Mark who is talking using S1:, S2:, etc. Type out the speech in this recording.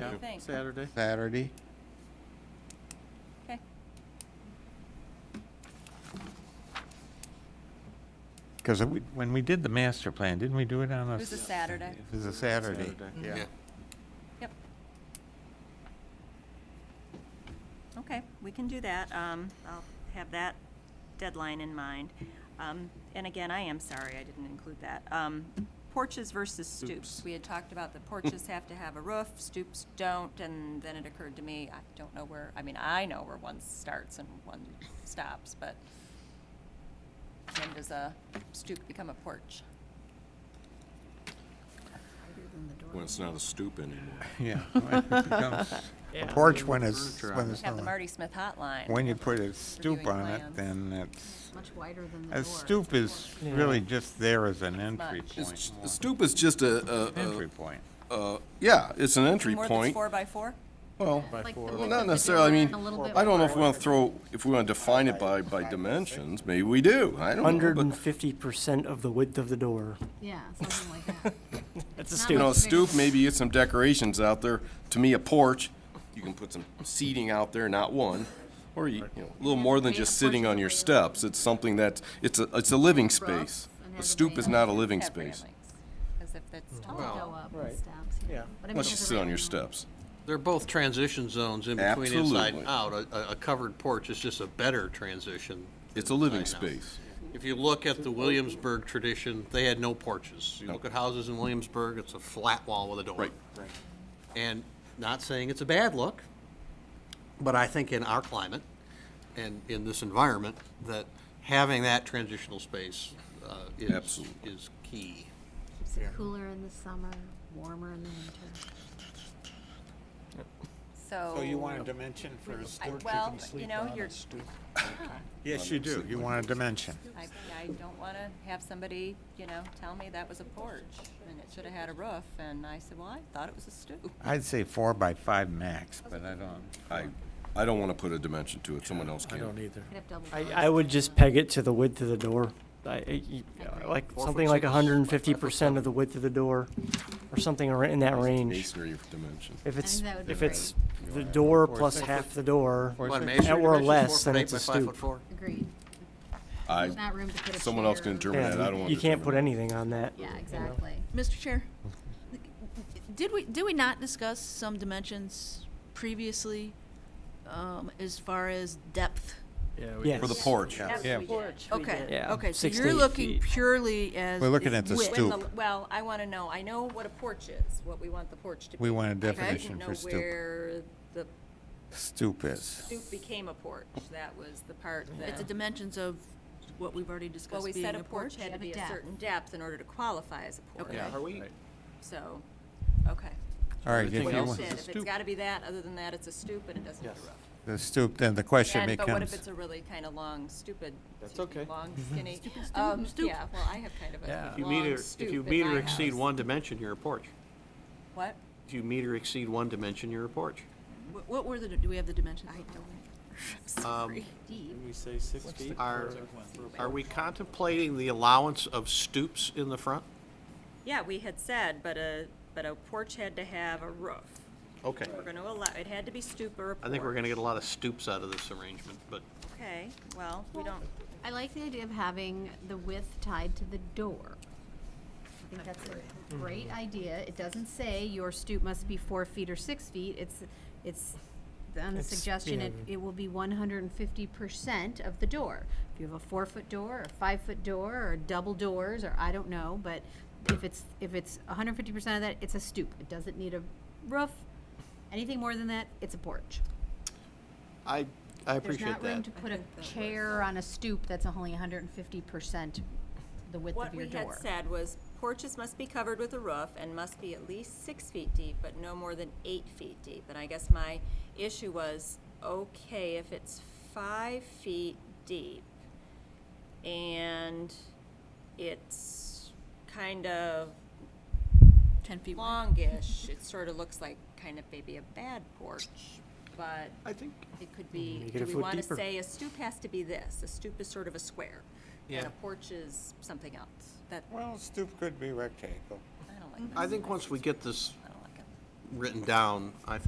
S1: think?
S2: Saturday.
S3: Saturday.
S1: Okay.
S3: Because when we did the master plan, didn't we do it on a?
S1: It was a Saturday.
S3: It was a Saturday.
S2: Yeah.
S1: Yep. Okay, we can do that. Um, I'll have that deadline in mind. Um, and again, I am sorry I didn't include that. Um, porches versus stoops.
S2: Oops.
S1: We had talked about the porches have to have a roof, stoops don't, and then it occurred to me, I don't know where, I mean, I know where one starts and one stops, but when does a stoop become a porch?
S4: When it's not a stoop anymore.
S3: Yeah. A porch when it's,
S2: Furniture
S3: when
S2: on
S3: it's,
S1: Have the
S3: not-
S1: Marty Smith hotline.
S3: when you put a stoop
S1: Reviewing
S3: on it,
S1: plans.
S3: then it's,
S5: Much wider than the door.
S3: a stoop is really just there as an entry
S1: Much.
S3: point.
S4: A stoop is just a,
S3: more.
S4: a,
S3: Entry point.
S4: a, a- yeah, it's an entry
S1: More than
S4: point.
S1: four by four?
S4: Well,
S5: Like the
S4: well,
S5: width of
S4: not
S5: the
S4: necessarily, I
S5: door
S4: mean,
S5: and a little bit
S4: I don't know if we
S5: wider.
S4: want to throw, if we want to define it by, by dimensions, maybe we do, I don't know.
S6: Hundred and
S4: But,
S6: fifty percent of the width of the door.
S5: Yeah, something like that.
S6: That's a
S5: Not
S6: stoop.
S4: you know, a
S5: much bigger.
S4: stoop, maybe get some decorations out there. To me, a porch, you can put some seating out there, not one. Or, you you know, a little more than just sitting on your steps. It's something that, it's a, it's a living space. A stoop is not a living
S1: Have
S4: space.
S1: railings, As if that's
S5: I'll
S1: tall.
S5: go up and
S2: right.
S5: steps, yeah.
S2: Yeah.
S5: But I mean,
S4: Unless you
S5: there's a
S4: sit on your
S5: railing.
S4: steps.
S7: They're both transition zones in between inside
S4: Absolutely.
S7: and out. A- A, a covered porch is just a better transition.
S4: It's a living
S7: inside and out.
S4: space.
S7: If you look at the Williamsburg tradition, they had no porches. You look at houses in Williamsburg, it's a flat wall with a door.
S4: Right.
S7: And not saying it's a bad look, but I think in our climate and in this environment, that having that transitional space uh, is,
S4: Absolutely.
S7: is key.
S5: Keeps it cooler in the summer, warmer in the winter.
S1: So.
S8: So you want a dimension for
S1: I-
S8: a stoop, you
S1: well,
S8: can
S1: you
S8: sleep
S1: know,
S8: on
S1: you're-
S8: a stoop.
S3: Yes, you do. You want a dimension.
S1: I, I don't want to have somebody, you know, tell me that was a porch and it should have had a roof. And I said, well, I thought it was a stoop.
S3: I'd say four by five max, but I don't.
S4: I, I don't want to put a dimension to it, someone else
S2: I don't
S4: can.
S2: either.
S5: Could have double
S6: I,
S5: doors.
S6: I would just peg it to the width of the door. I- I- you- Like, something like hundred and fifty percent of the width of the door, or something ar- in that range.
S4: Masonry dimension.
S6: If it's,
S5: that would be
S6: if it's the door plus half the door,
S7: What,
S3: six-
S7: measure
S6: Or
S7: dimensions?
S6: less,
S7: Four foot
S6: then
S7: eight
S6: it's a
S7: by five
S6: stoop.
S7: foot four?
S5: Agreed.
S4: I,
S5: There's not room to put a
S4: someone else
S5: chair
S4: can
S5: or-
S4: interpret that, I
S6: yeah,
S4: don't
S6: you-
S4: want to.
S6: you can't put anything on that.
S5: Yeah, exactly.
S9: Mr. Chair, did we, did we not discuss some dimensions previously um, as far as depth?
S6: Yes.
S4: For the porch.
S3: Yeah.
S9: Okay,
S6: Yeah,
S9: okay, so
S6: six to
S9: you're
S6: eight
S9: looking
S6: feet.
S9: purely as.
S3: We're looking
S9: is
S3: at the
S9: width.
S1: When the-
S3: Stoop.
S1: Um, Well, I want to know, I know what a porch is, what we want the porch to be.
S3: We want a
S1: I
S3: definition
S1: didn't
S3: for
S1: know
S3: stoop.
S1: where the
S3: Stoop is.
S1: stoop became a porch. That was the part
S9: At the
S1: that,
S9: dimensions of what we've already
S1: well,
S9: discussed
S1: we
S9: being
S1: said a
S9: a
S1: porch
S9: porch.
S1: had to
S5: Have a
S1: be a
S5: depth.
S1: certain depth in order to qualify as a porch.
S9: Okay.
S8: Are we,
S1: So, okay.
S3: All right, if
S2: Everything
S3: you
S2: else
S3: want
S1: Said
S2: a
S1: If it's
S2: stoop.
S1: got to be that, other than that, it's a stoop and it doesn't have a
S8: Yes.
S1: roof.
S3: the stoop, then the question
S1: And- But what if
S3: becomes,
S1: it's a really kind of long, stupid?
S8: That's okay.
S1: Long, skinny, um, yeah, well, I have kind of
S7: Yeah.
S1: a
S7: If
S6: you
S1: long stoop in my house.
S7: dimension, you're a porch.
S1: What?
S7: If you meet or exceed one dimension, you're a porch.
S9: Wh- What were the, do we have the dimensions? I don't.
S7: Um,
S8: did we say six feet?
S7: Are,
S8: for- for-
S7: are we contemplating the allowance of stoops in the front?
S1: Yeah, we had said, but a, but a porch had to have a roof.
S7: Okay.
S1: We're going to allow, it had to be stoop or a
S7: I think we're gonna
S1: porch.
S7: get a lot of stoops out of this arrangement, but
S1: Okay, well, we don't,
S5: I like the idea of having the width tied to the door. I think that's a great idea. It doesn't say your stoop must be four feet or six feet. It's, it's, on the
S6: It's-
S5: suggestion, it,
S6: yeah.
S5: it will be one hundred and fifty percent of the door. If you have a four-foot door, or a five-foot door, or double doors, or I don't know, but if it's, if it's hundred and fifty percent of that, it's a stoop. It doesn't need a roof. Anything more than that, it's a porch.
S7: I, I
S5: There's
S7: appreciate
S5: not room
S7: that.
S5: to put a chair on a stoop that's only hundred and fifty percent the width
S1: what
S5: of your
S1: we
S5: door.
S1: had said was porches must be covered with a roof and must be at least six feet deep, but no more than eight feet deep. And I guess my issue was, okay, if it's five feet deep and it's kind of
S9: Ten feet wide.
S1: longish, it sort of looks like kind of maybe a bad porch, but
S7: I think,
S1: it could be,
S6: Make it
S1: do
S6: a
S1: we
S6: foot
S1: want to
S6: deeper.
S1: say a stoop has to be this? A stoop is sort of a square. And
S7: Yeah.
S1: a porch is something else. That,
S3: well, stoop could be rectangle.
S1: I don't like that.
S7: I think once we get this
S1: I don't like it.
S7: written down, I think